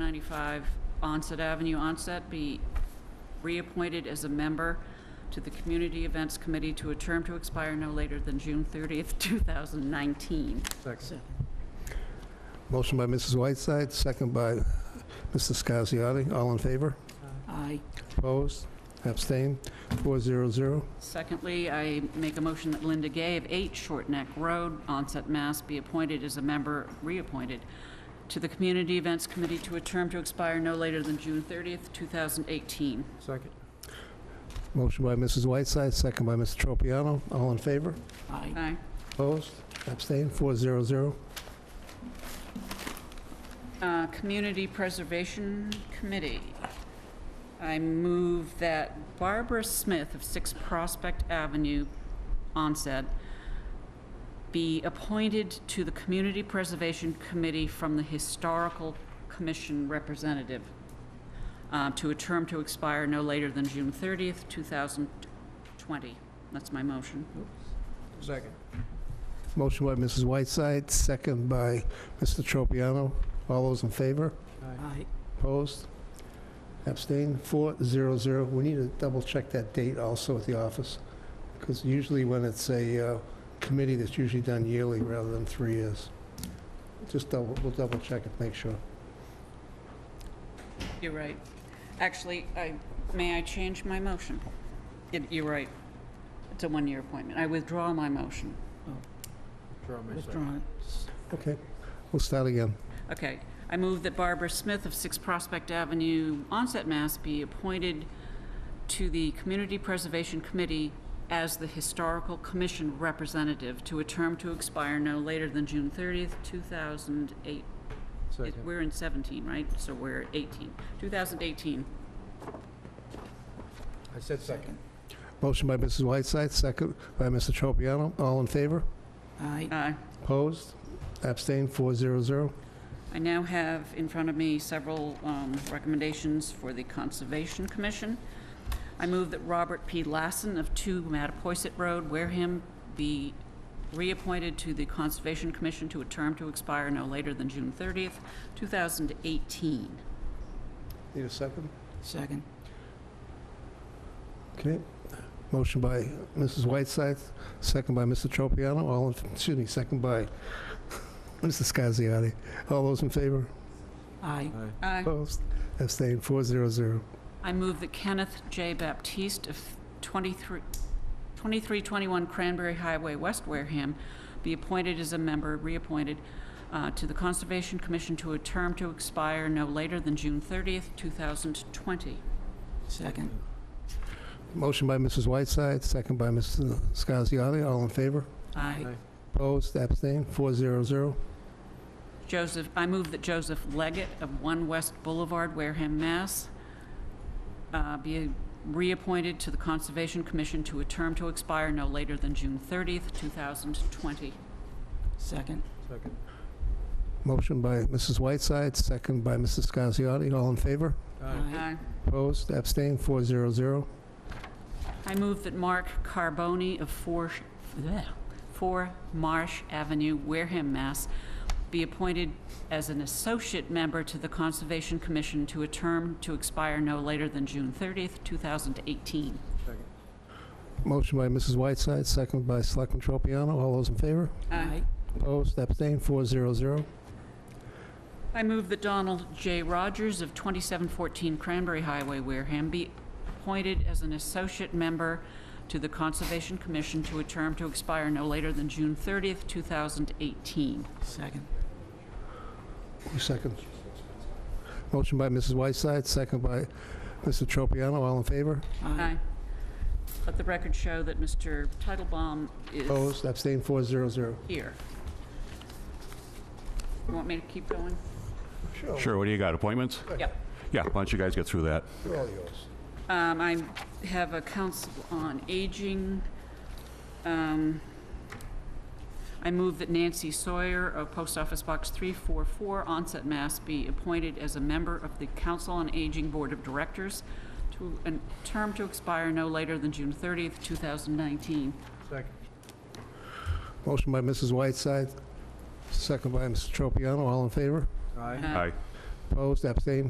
295 Onset Avenue, Onset, be reappointed as a member to the Community Events Committee to a term to expire no later than June 30th, 2019. Second. Motion by Mrs. Whiteside, second by Mr. Scasiati. All in favor? Aye. Opposed? Abstained? 400. Secondly, I make a motion that Linda Gay of 8 Short Neck Road, Onset, Mass. be appointed as a member, reappointed, to the Community Events Committee to a term to expire no later than June 30th, 2018. Second. Motion by Mrs. Whiteside, second by Mr. Tropiano. All in favor? Aye. Aye. Opposed? Abstained? 400. Uh, Community Preservation Committee. I move that Barbara Smith of 6 Prospect Avenue, Onset, be appointed to the Community Preservation Committee from the Historical Commission representative uh, to a term to expire no later than June 30th, 2020. That's my motion. Second. Motion by Mrs. Whiteside, second by Mr. Tropiano. All those in favor? Aye. Opposed? Abstained? 400. We need to double-check that date also at the office, because usually when it's a uh, committee, that's usually done yearly rather than three years. Just double, we'll double-check it, make sure. You're right. Actually, I, may I change my motion? It- You're right. It's a one-year appointment. I withdraw my motion. Withdrawn. Okay, we'll start again. Okay. I move that Barbara Smith of 6 Prospect Avenue, Onset, Mass. be appointed to the Community Preservation Committee as the Historical Commission representative to a term to expire no later than June 30th, 2008. It- We're in 17, right? So we're 18. 2018. I said second. Motion by Mrs. Whiteside, second by Mr. Tropiano. All in favor? Aye. Aye. Opposed? Abstained? 400. I now have in front of me several um, recommendations for the Conservation Commission. I move that Robert P. Lassen of 2 Mattapoisett Road, Wareham, be reappointed to the Conservation Commission to a term to expire no later than June 30th, 2018. Need a second? Second. Okay. Motion by Mrs. Whiteside, second by Mr. Tropiano. All, in- excuse me, second by Mr. Scasiati. All those in favor? Aye. Aye. Opposed? Abstained? 400. I move that Kenneth J. Baptiste of 23 2321 Cranberry Highway, West Wareham, be appointed as a member, reappointed, uh, to the Conservation Commission to a term to expire no later than June 30th, 2020. Second. Motion by Mrs. Whiteside, second by Mr. Scasiati. All in favor? Aye. Opposed? Abstained? 400. Joseph, I move that Joseph Leggett of 1 West Boulevard, Wareham, Mass., uh, be reappointed to the Conservation Commission to a term to expire no later than June 30th, 2020. Second. Second. Motion by Mrs. Whiteside, second by Mr. Scasiati. All in favor? Aye. Opposed? Abstained? 400. I move that Mark Carboni of 4, Sh- bleh, 4 Marsh Avenue, Wareham, Mass., be appointed as an associate member to the Conservation Commission to a term to expire no later than June 30th, 2018. Second. Motion by Mrs. Whiteside, second by Selectman Tropiano. All those in favor? Aye. Opposed? Abstained? 400. I move that Donald J. Rogers of 2714 Cranberry Highway, Wareham, be appointed as an associate member to the Conservation Commission to a term to expire no later than June 30th, 2018. Second. Who seconds? Motion by Mrs. Whiteside, second by Mr. Tropiano. All in favor? Aye. Let the record show that Mr. Titlebaum is Opposed? Abstained? 400. here. You want me to keep going? Sure, what do you got, appointments? Yep. Yeah, why don't you guys get through that? They're all yours. Um, I have a council on aging. Um, I move that Nancy Sawyer of Post Office Box 344, Onset, Mass. be appointed as a member of the Council on Aging Board of Directors to a term to expire no later than June 30th, 2019. Second. Motion by Mrs. Whiteside, second by Mr. Tropiano. All in favor? Aye. Uh, Aye. Opposed, abstained,